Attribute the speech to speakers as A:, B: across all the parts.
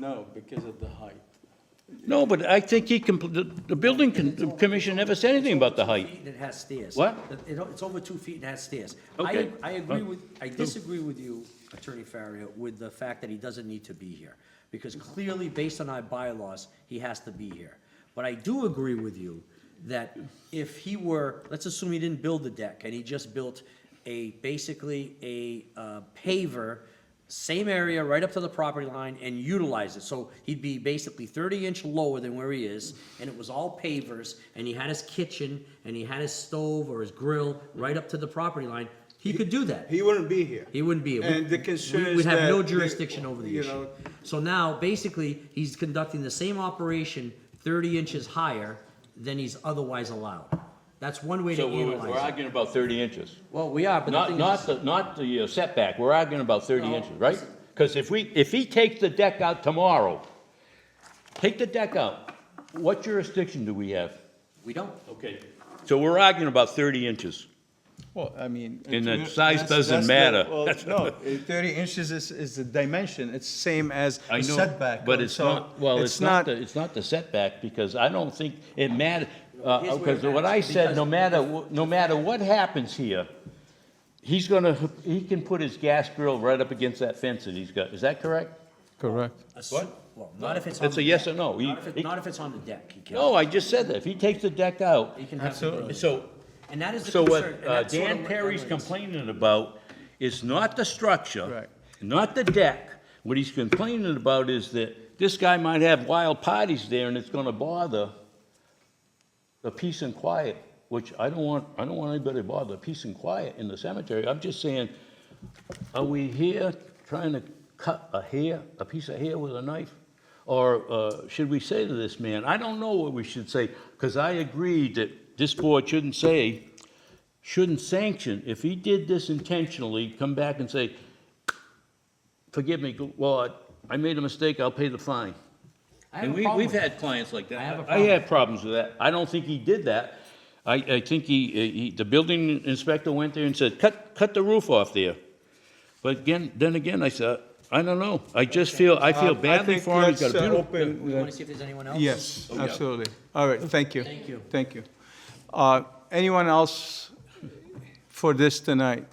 A: No, because of the height.
B: No, but I think he, compl- the the building con- commission never said anything about the height.
C: Feet and it has stairs.
B: What?
C: It- it- It's over two feet and has stairs.
B: Okay.
C: I, I agree
B: Oh.
C: with, I disagree with you, Attorney Farrier, with the fact that he doesn't need to be here. Because clearly, based on our bylaws, he has to be here. But I do agree with you that if he were, let's assume he didn't build the deck and he just built a, basically a uh, paver, same area right up to the property line and utilize it. So he'd be basically thirty inch lower than where he is and it was all pavers and he had his kitchen and he had his stove or his grill right up to the property line. He could do that.
D: He wouldn't be here.
C: He wouldn't be. We-
D: And the
C: we-
D: concern
C: we
D: is
C: would have no
D: that they-
C: jurisdiction over the
D: you
C: issue.
D: know-
C: So now, basically, he's conducting the same operation thirty inches higher than he's otherwise allowed. That's one way to
B: So we're we're
C: analyze it.
B: arguing about 30 inches.
C: Well, we are, but the
B: Not,
C: thing is,
B: not, the not the uh, setback, we're arguing about thirty
C: No.
B: inches, right? Because if we, if he takes the deck out tomorrow, take the deck out, what jurisdiction do we have?
C: we don't.
B: Okay. So we're arguing about thirty inches.
D: Well, I mean.
B: And
D: to
B: the
D: me,
B: size
D: that's- that's
B: doesn't
D: the-
B: matter.
D: Well, no, eh, thirty inches is, is the dimension, it's same as
B: I
D: a
B: know,
D: setback.
B: But
D: uh,
B: it's
D: so
B: not, well, it's not, the- it's not the setback, because I don't think it matters,
C: Here's where it
B: because what I
C: matters,
B: said, no
C: because-
B: matter, wh- no matter what happens here, he's gonna, he can put his gas grill right up against that fence that he's got, is that correct?
D: Correct.
C: What? Well, not if it's on.
B: It's
C: the
B: a yes
C: deck.
B: or no. He-
C: Not if, it-
B: he-
C: not if it's on the deck, he can.
B: No, I just said that, if he takes the deck out,
C: He can have the
D: Absolutely.
C: ability.
B: so
C: And that is the
B: So
C: concern.
B: what
C: and
B: uh,
C: that's sort of
B: Dan
C: what
B: Perry's
C: everyone is.
B: complaining about is not the structure,
D: Correct.
B: not the deck. What he's complaining about is that this guy might have wild parties there and it's gonna bother the peace and quiet, which I don't want, I don't want anybody to bother peace and quiet in the cemetery. I'm just saying, are we here trying to cut a hair, a piece of hair with a knife? Or uh, should we say to this man, I don't know what we should say, because I agree that this board shouldn't say, shouldn't sanction, if he did this intentionally, come back and say, forgive me, Lord, I made a mistake, I'll pay the fine.
C: I have
B: And
C: a
B: we,
C: problem
B: we've
C: with that.
B: had clients like that.
C: I have a
B: I
C: problem.
B: have problems with that. I don't think he did that. I, I think he, he, the building inspector went there and said, cut, cut the roof off there. But again, then again, I said, I don't know. I just feel, I feel badly for him. He's
D: uh,
B: got a beautiful. Oh,
C: We wanna see if there's anyone else?
D: Yes, absolutely. All right, thank you.
C: Thank you.
D: Thank you. Uh, Anyone else for this tonight?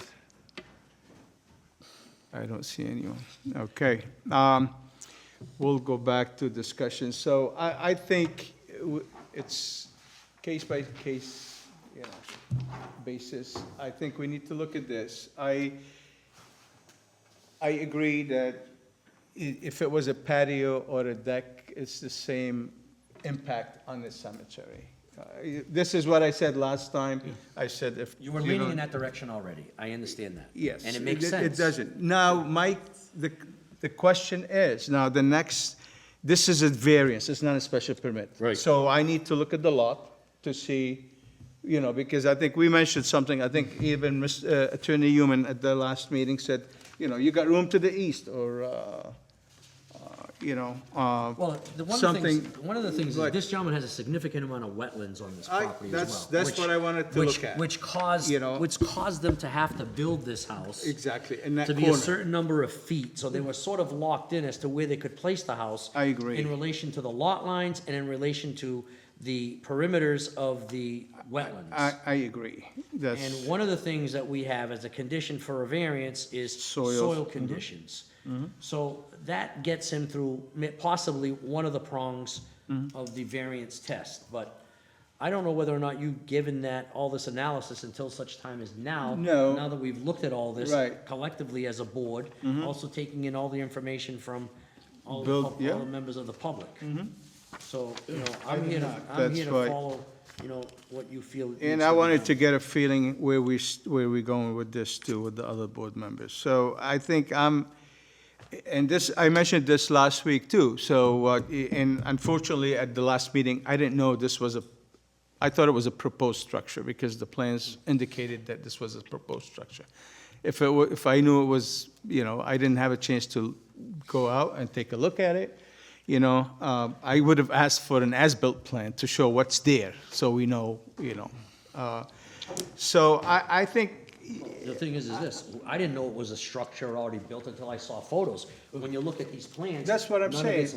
D: I don't see anyone. Okay. um, We'll go back to discussion. So I, I think w- it's case by case, you know, basis. I think we need to look at this. I, I agree that i- if it was a patio or a deck, it's the same impact on the cemetery. Uh, This is what I said last time. I said if.
C: You were leaning
D: don't-
C: in that direction already. I understand that.
D: Yes.
C: And it makes sense.
D: It doesn't. Now, Mike, the, the question is, now the next, this is a variance, it's not a special permit.
B: Right.
D: So I need to look at the lot to see, you know, because I think we mentioned something, I think even Mis- uh, Attorney Human at the last meeting said, you know, you got room to the east or, uh, uh, you know, uh,
C: Well, the one of the
D: something.
C: things, one of the things is
D: But-
C: this gentleman has a significant amount of wetlands on this
D: I-
C: property as well.
D: that's- that's
C: which-
D: what I wanted to
C: which-
D: look at,
C: Which caused,
D: you know?
C: which caused them to have to build this house.
D: Exactly, in that
C: To be a
D: corner.
C: certain number of feet, so they were sort of locked in as to where they could place the house.
D: I agree.
C: In relation to the lot lines and in relation to the perimeters of the wetlands.
D: I, I agree, that's.
C: And one of the things that we have as a condition for a variance is
D: Soil. Mm-hmm.
C: soil conditions. So that gets him through mi- possibly one of the prongs
D: Mm-hmm.
C: of the variance test, but I don't know whether or not you've given that, all this analysis until such time as now.
D: No.
C: Now that we've looked at all this
D: Right. Mm-hmm.
C: collectively as a board, also taking in all the information from all the,
D: Build-
C: pub- all
D: yeah.
C: the members of the public. So, you know, I'm
D: did
C: here to,
D: not.
C: I'm here
D: That's
C: to
D: right.
C: follow, you know, what you feel. needs
D: And
C: to
D: I
C: be
D: wanted
C: done.
D: to get a feeling where we, s- where we're going with this too, with the other board members. So I think I'm, and this, I mentioned this last week too, so, uh, and unfortunately, at the last meeting, I didn't know this was a, I thought it was a proposed structure, because the plans indicated that this was a proposed structure. If it were, if I knew it was, you know, I didn't have a chance to go out and take a look at it, you know, um, I would have asked for an as-built plan to show what's there, so we know, you know. Uh, So I, I think,
C: The thing is, is this, I didn't know it was a structure already built until I saw photos. When you look at these plans.
D: That's what I'm
C: none of it's
D: saying.